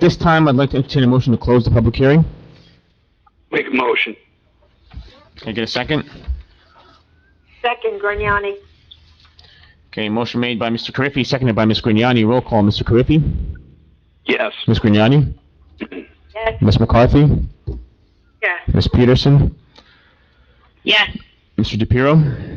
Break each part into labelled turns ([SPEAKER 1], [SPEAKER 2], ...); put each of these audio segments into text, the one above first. [SPEAKER 1] This time, I'd like to entertain a motion to close the public hearing.
[SPEAKER 2] Make a motion.
[SPEAKER 1] Can I get a second?
[SPEAKER 3] Second, Grignani.
[SPEAKER 1] Okay, motion made by Mr. Carriffy, seconded by Ms. Grignani. Roll call, Mr. Carriffy?
[SPEAKER 2] Yes.
[SPEAKER 1] Ms. Grignani?
[SPEAKER 3] Yes.
[SPEAKER 1] Ms. McCarthy?
[SPEAKER 3] Yes.
[SPEAKER 1] Ms. Peterson?
[SPEAKER 3] Yes.
[SPEAKER 1] Mr. DePiero?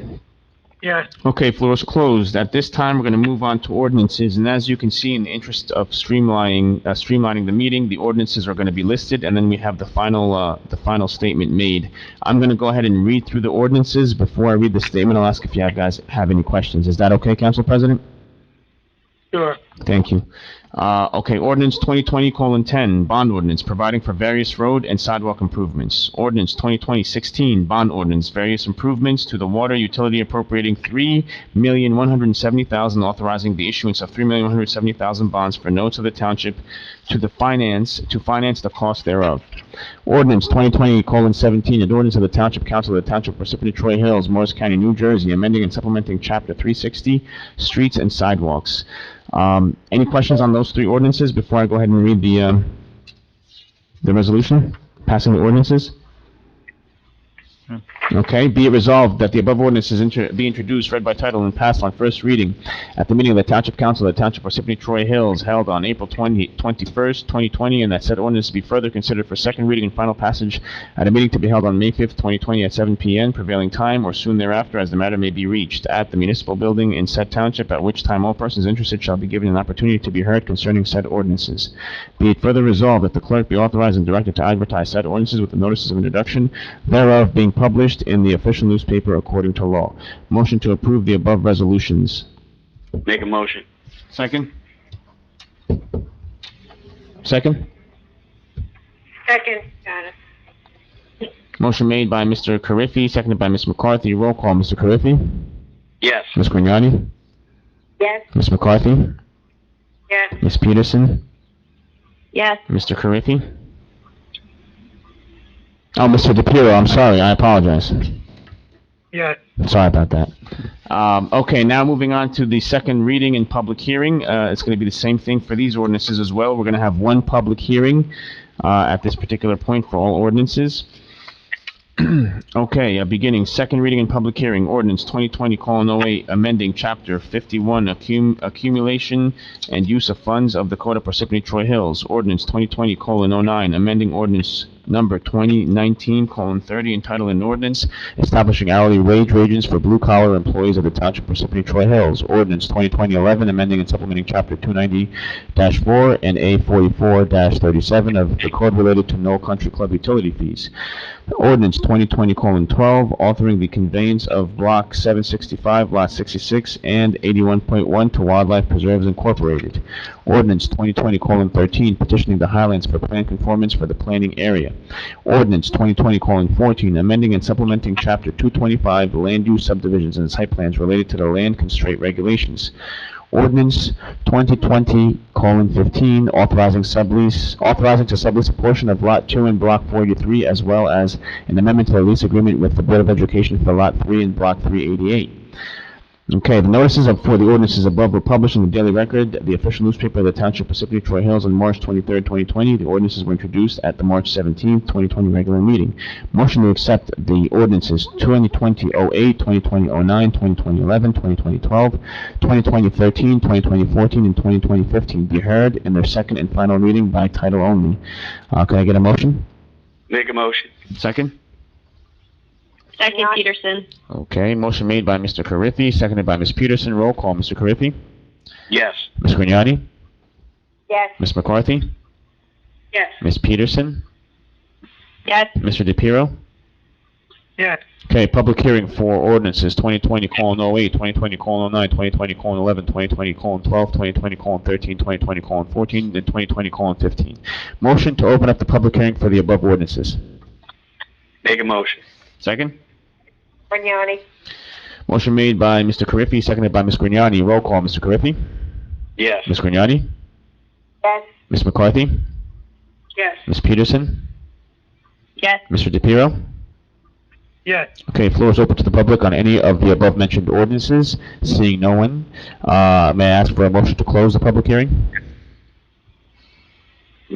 [SPEAKER 2] Yes.
[SPEAKER 1] Okay, floor is closed. At this time, we're going to move on to ordinances, and as you can see, in the interest of streamlining, uh, streamlining the meeting, the ordinances are going to be listed, and then we have the final, uh, the final statement made. I'm going to go ahead and read through the ordinances. Before I read the statement, I'll ask if you guys have any questions. Is that okay, Council President?
[SPEAKER 2] Sure.
[SPEAKER 1] Thank you. Uh, okay, ordinance twenty twenty colon ten, bond ordinance, providing for various road and sidewalk improvements. Ordinance twenty twenty sixteen, bond ordinance, various improvements to the water utility appropriating three million one hundred and seventy thousand, authorizing the issuance of three million one hundred and seventy thousand bonds for notes of the township to the finance, to finance the cost thereof. Ordinance twenty twenty colon seventeen, an ordinance of the Township Council of the Township of Parsippany Troy Hills, Morris County, New Jersey, amending and supplementing chapter three sixty, streets and sidewalks. Um, any questions on those three ordinances before I go ahead and read the, um, the resolution, passing the ordinances? Okay, be it resolved that the above ordinances inter- be introduced, read by title, and passed on first reading at the meeting of the Township Council of the Township of Parsippany Troy Hills held on April 20, 21st, 2020, and that said ordinance be further considered for second reading and final passage at a meeting to be held on May 5th, 2020 at 7 p.m. prevailing time or soon thereafter as the matter may be reached at the municipal building in said township, at which time all persons interested shall be given an opportunity to be heard concerning said ordinances. Be it further resolved that the clerk be authorized and directed to advertise said ordinances with the notices of introduction thereof being published in the official newspaper according to law. Motion to approve the above resolutions.
[SPEAKER 2] Make a motion.
[SPEAKER 1] Second? Second?
[SPEAKER 3] Second, got it.
[SPEAKER 1] Motion made by Mr. Carriffy, seconded by Ms. McCarthy. Roll call, Mr. Carriffy?
[SPEAKER 2] Yes.
[SPEAKER 1] Ms. Grignani?
[SPEAKER 3] Yes.
[SPEAKER 1] Ms. McCarthy?
[SPEAKER 3] Yes.
[SPEAKER 1] Ms. Peterson?
[SPEAKER 3] Yes.
[SPEAKER 1] Mr. Carriffy? Oh, Mr. DePiero, I'm sorry, I apologize.
[SPEAKER 2] Yes.
[SPEAKER 1] Sorry about that. Um, okay, now moving on to the second reading and public hearing. Uh, it's going to be the same thing for these ordinances as well. We're going to have one public hearing, uh, at this particular point for all ordinances. Okay, uh, beginning, second reading and public hearing, ordinance 2020:08, amending Chapter 51 accum- Accumulation and Use of Funds of the Code of Parsippany Troy Hills, ordinance 2020:09, amending ordinance number 2019:30, entitled an ordinance establishing hourly wage ranges for blue-collar employees of the Township of Parsippany Troy Hills, ordinance 2020:11, amending and supplementing Chapter 290-4 and A44-37 of the code related to no country club utility fees. Ordinance 2020:12, authoring the conveyance of Block 765, Lot 66, and 81.1 to Wildlife Preserves Incorporated. Ordinance 2020:13, petitioning the Highlands for plan conformance for the planning area. Ordinance 2020:14, amending and supplementing Chapter 225, Land Use Subdivisions and Site Plans related to the land constraint regulations. Ordinance 2020:15, authorizing sublease, authorizing to sublease a portion of Lot 2 and Block 43, as well as an amendment to the lease agreement with the Board of Education for Lot 3 and Block 388. Okay, the notices of, for the ordinances above were published in the Daily Record, the official newspaper of the Township of Parsippany Troy Hills on March 23, 2020. The ordinances were introduced at the March 17, 2020 regular meeting. Motion to accept the ordinances 2020-08, 2020-09, 2020-11, 2020-12, 2020-13, 2020-14, and 2020-15 be heard in their second and final reading by title only. Uh, can I get a motion?
[SPEAKER 2] Make a motion.
[SPEAKER 1] Second.
[SPEAKER 3] Second,
[SPEAKER 4] Peterson.
[SPEAKER 1] Okay, motion made by Mr. Carriffy, seconded by Ms. Peterson. Roll call, Mr. Carriffy.
[SPEAKER 2] Yes.
[SPEAKER 1] Ms. Grignani?
[SPEAKER 3] Yes.
[SPEAKER 1] Ms. McCarthy?
[SPEAKER 3] Yes.
[SPEAKER 1] Ms. Peterson?
[SPEAKER 4] Yes.
[SPEAKER 1] Mr. DePiero?
[SPEAKER 2] Yes.
[SPEAKER 1] Okay, public hearing for ordinances 2020 colon 08, 2020 colon 09, 2020 colon 11, 2020 colon 12, 2020 colon 13, 2020 colon 14, and 2020 colon 15. Motion to open up the public hearing for the above ordinances.
[SPEAKER 2] Make a motion.
[SPEAKER 1] Second?
[SPEAKER 3] Grignani.
[SPEAKER 1] Motion made by Mr. Carriffy, seconded by Ms. Grignani. Roll call, Mr. Carriffy?
[SPEAKER 2] Yes.
[SPEAKER 1] Ms. Grignani?
[SPEAKER 3] Yes.
[SPEAKER 1] Ms. McCarthy?
[SPEAKER 3] Yes.
[SPEAKER 1] Ms. Peterson?
[SPEAKER 4] Yes.
[SPEAKER 1] Mr. DePiero?
[SPEAKER 2] Yes.
[SPEAKER 1] Okay, floor is open to the public on any of the above-mentioned ordinances. Seeing no one, uh, may I ask for a motion to close the public hearing?